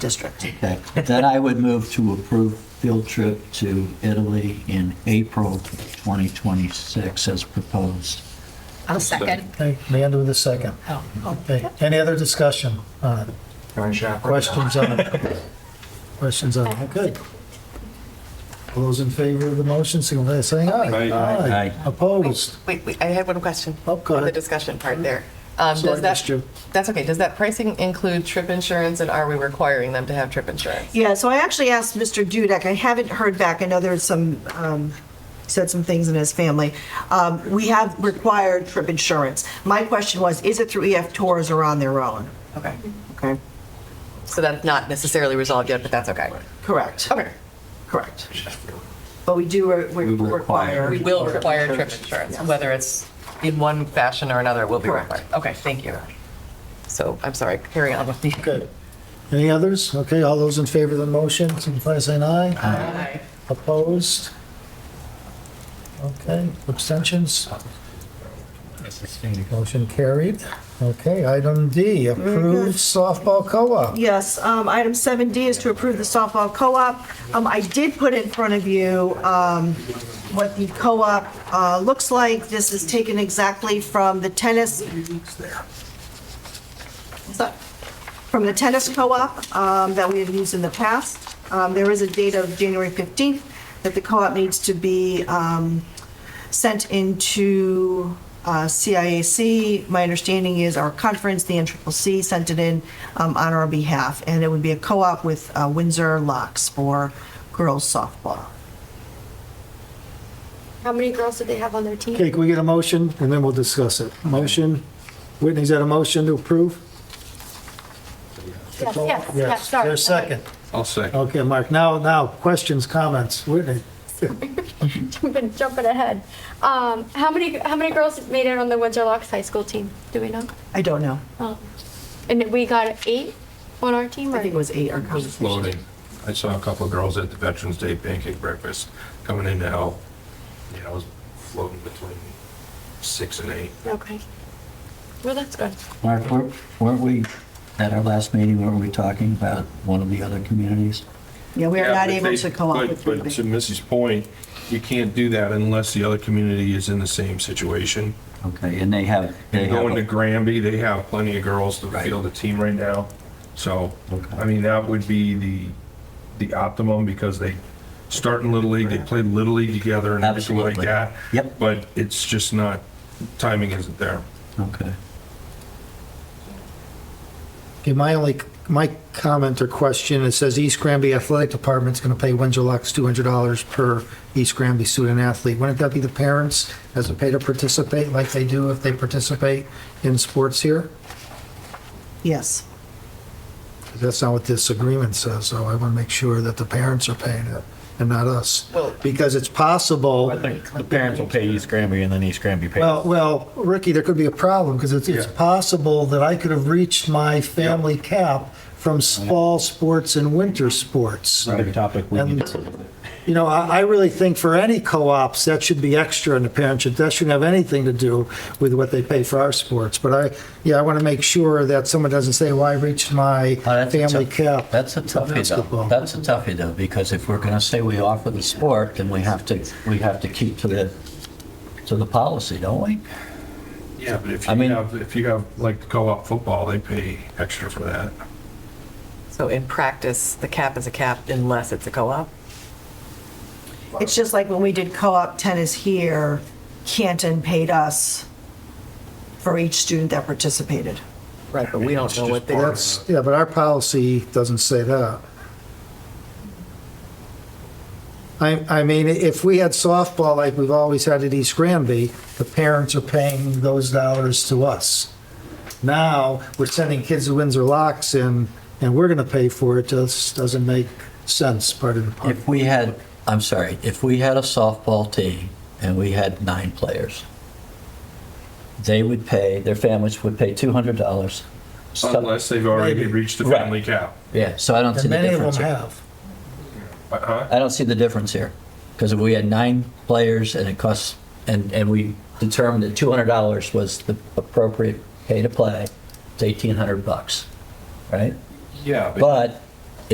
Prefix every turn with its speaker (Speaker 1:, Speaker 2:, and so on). Speaker 1: district.
Speaker 2: Okay, then I would move to approve field trip to Italy in April 2026 as proposed.
Speaker 1: I'll second.
Speaker 3: Okay, Leander with a second.
Speaker 1: Oh, oh,
Speaker 3: Okay, any other discussion on it?
Speaker 4: Going shopping.
Speaker 3: Questions on it? Questions on it? Good. All those in favor of the motion, signify by saying aye.
Speaker 4: Aye.
Speaker 2: Aye.
Speaker 3: Opposed?
Speaker 5: Wait, wait, I had one question.
Speaker 3: Oh, go
Speaker 5: On the
Speaker 3: ahead.
Speaker 5: discussion part there. Um,
Speaker 3: Sorry,
Speaker 5: does that-
Speaker 3: missed you.
Speaker 5: That's okay. Does that pricing include trip insurance and are we requiring them to have trip insurance?
Speaker 6: Yeah, so I actually asked Mr. Dudek, I haven't heard back, I know there's some, um, said some things in his family. Um, we have required trip insurance. My question was, is it through EF Tours or on their own?
Speaker 5: Okay.
Speaker 6: Okay,
Speaker 5: So that's not necessarily resolved yet, but that's okay.
Speaker 6: correct,
Speaker 5: Okay.
Speaker 6: correct. But we do re- we
Speaker 2: We require.
Speaker 6: require.
Speaker 5: We will require trip insurance, whether it's in one fashion or another, it will be
Speaker 6: Correct.
Speaker 5: required. Okay, thank you. So I'm sorry, carry on with the.
Speaker 3: Good. Any others? Okay, all those in favor of the motion, signify by saying aye.
Speaker 5: Aye.
Speaker 3: Opposed? Okay, abstentions? Motion carried. Okay, item D, approved softball co-op.
Speaker 6: Yes, um, item 7D is to approve the softball co-op. Um, I did put in front of you um, what the co-op uh, looks like. This is taken exactly from the tennis from the tennis co-op um, that we have used in the past. Um, There is a date of January 15th that the co-op needs to be um, sent into uh, CIAC. My understanding is our conference, the NCCC, sent it in um, on our behalf, and it would be a co-op with uh, Windsor Locks for girls softball.
Speaker 7: How many girls do they have on their team?
Speaker 3: Okay, can we get a motion and then we'll discuss it? Motion, Whitney's got a motion to approve?
Speaker 7: Yes, yes, yes,
Speaker 3: Yes,
Speaker 7: sorry.
Speaker 3: there's second.
Speaker 4: I'll second.
Speaker 3: Okay, Mark, now, now, questions, comments, Whitney?
Speaker 7: We've been jumping ahead. Um, how many, how many girls made it on the Windsor Locks High School team? Do we know?
Speaker 6: I don't know.
Speaker 7: Um, And we got eight on our team,
Speaker 6: I think it
Speaker 7: right?
Speaker 6: was eight or conversation.
Speaker 4: Floating. I saw a couple of girls at the Veterans Day pancake breakfast coming in to help. Yeah, I was floating between six and eight.
Speaker 7: Okay. Well, that's good.
Speaker 2: Mark, weren't weren't we, at our last meeting, weren't we talking about one of the other communities?
Speaker 6: Yeah, we are
Speaker 4: Yeah,
Speaker 6: not
Speaker 4: but
Speaker 6: able
Speaker 4: they-
Speaker 6: to co-op
Speaker 4: but-
Speaker 6: with
Speaker 4: But to
Speaker 6: Ruby.
Speaker 4: Missy's point, you can't do that unless the other community is in the same situation.
Speaker 2: Okay, and they have, they
Speaker 4: And
Speaker 2: have,
Speaker 4: going to
Speaker 2: a-
Speaker 4: Granby, they have plenty of girls to
Speaker 2: Right.
Speaker 4: field a team right now. So,
Speaker 2: Okay.
Speaker 4: I mean, that would be the, the optimum because they start in Little League, they play Little League together and everything like
Speaker 2: Absolutely.
Speaker 4: that.
Speaker 2: Yep.
Speaker 4: But it's just not, timing isn't there.
Speaker 2: okay.
Speaker 3: Okay, my only, my comment or question, it says East Granby Athletic Department's going to pay Windsor Locks $200 per East Granby student athlete. Wouldn't that be the parents as a pay to participate, like they do if they participate in sports here?
Speaker 6: Yes.
Speaker 3: That's not what this agreement says, so I want to make sure that the parents are paying it and not us.
Speaker 5: Well-
Speaker 3: Because it's possible,
Speaker 8: I think the parents will pay East Granby and then East Granby pays.
Speaker 3: well, well, Ricky, there could be a problem because it's, it's
Speaker 4: Yeah.
Speaker 3: possible that I could have reached my family cap from fall sports and winter sports.
Speaker 8: Another topic we
Speaker 3: And-
Speaker 8: need to.
Speaker 3: You know, I, I really think for any co-ops, that should be extra and the parents should, that shouldn't have anything to do with what they pay for our sports. But I, yeah, I want to make sure that someone doesn't say, well, I reached my
Speaker 2: Oh, that's a
Speaker 3: family
Speaker 2: tough-
Speaker 3: cap.
Speaker 2: That's a toughie though.
Speaker 3: Basketball.
Speaker 2: That's a toughie though, because if we're going to say we offer the sport, then we have to, we have to keep to the, to the policy, don't we?
Speaker 4: Yeah, but if
Speaker 2: I
Speaker 4: you
Speaker 2: mean-
Speaker 4: have, if you have like co-op football, they pay extra for that.
Speaker 5: So in practice, the cap is a cap unless it's a co-op?
Speaker 6: It's just like when we did co-op tennis here, Canton paid us for each student that participated.
Speaker 5: Right, but we don't know what they are.
Speaker 3: That's, yeah, but our policy doesn't say that. I, I mean, if we had softball like we've always had at East Granby, the parents are paying those dollars to us. Now, we're sending kids to Windsor Locks and, and we're gonna pay for it, just doesn't make sense, part of the part.
Speaker 2: If we had, I'm sorry, if we had a softball team and we had nine players, they would pay, their families would pay $200. So-
Speaker 4: Unless they've already
Speaker 3: Maybe.
Speaker 4: reached the
Speaker 2: Right.
Speaker 4: family cap.
Speaker 2: Yeah, so I don't see
Speaker 3: And
Speaker 2: the
Speaker 3: many of them
Speaker 2: difference. here.
Speaker 3: have.
Speaker 4: Uh-huh.
Speaker 2: I don't see the difference here. Because if we had nine players and it costs, and, and we determined that $200 was the appropriate pay to play, it's 1,800 bucks, right?
Speaker 4: Yeah, but
Speaker 2: But